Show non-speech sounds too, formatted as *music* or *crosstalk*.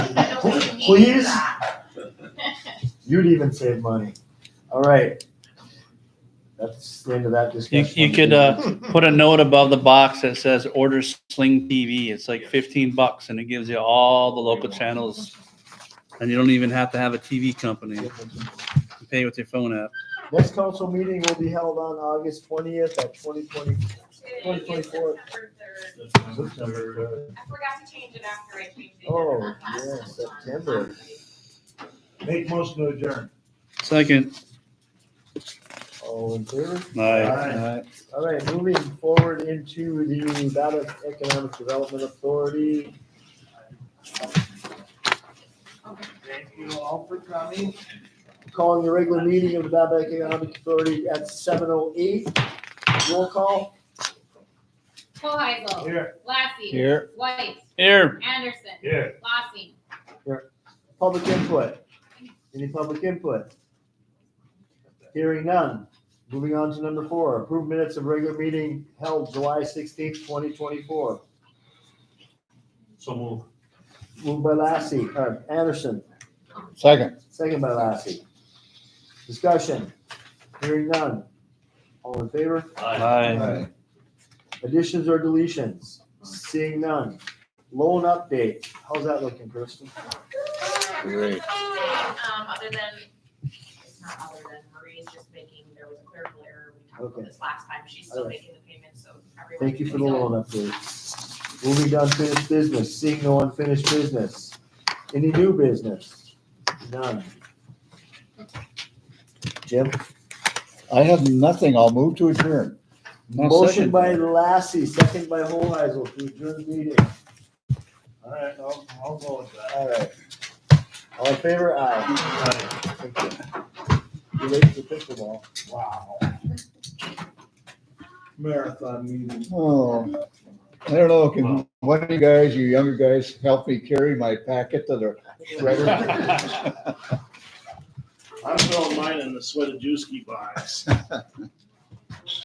Please? You'd even save money. All right. That's the end of that You, discussion. you could, uh, put a note above the box that says order Sling TV. It's like fifteen bucks and it gives you all the local channels. And you don't even have to have a TV company. You can Pay with your phone app. Next council meeting will be held on August twentieth at twenty twenty. Twenty twenty-four. September. I forgot to change it after I changed it. Oh, yeah, September. Make motion to adjourn. Second. All in favor? Aye. All right, moving forward into the Nevada Economic Development Authority. Thank you all for coming. Calling the regular meeting of the Nevada Economic Authority at seven oh eight. Roll call. Hoheisel, Here. Lassie. Here. White, Here. Anderson, Here. Lossing. Public input. Any public input? Hearing none. Moving on to number four, approved minutes of regular meeting held July sixteenth, twenty twenty-four. So move. Moved by Lassie, uh, Anderson, Second. second by Lassie. Discussion. Hearing none. All in favor? Aye. Additions or deletions? Seeing none. Loan update. How's that looking, Kristen? Great. Um, other than, it's not other than Marie's just making, there was a clerical error. We talked about Okay. this last time. She's still All right. making the payment, so everyone. Thank you for the loan update. Moving to unfinished business, seeing no unfinished business. Any new business? None. Jim? I have nothing. I'll move to adjourn. I'll Motion second. by Lassie, second by Hoheisel to adjourn the meeting. All right, I'll, I'll go with that. All right. All in favor? Aye. All right. Thank you. You late for pickleball. Wow. Marathon meeting. Oh, I don't know. Can one of you guys, you younger guys, help me carry my packet to the *laughs* shredder? I'm throwing mine in the sweat of Juicy box.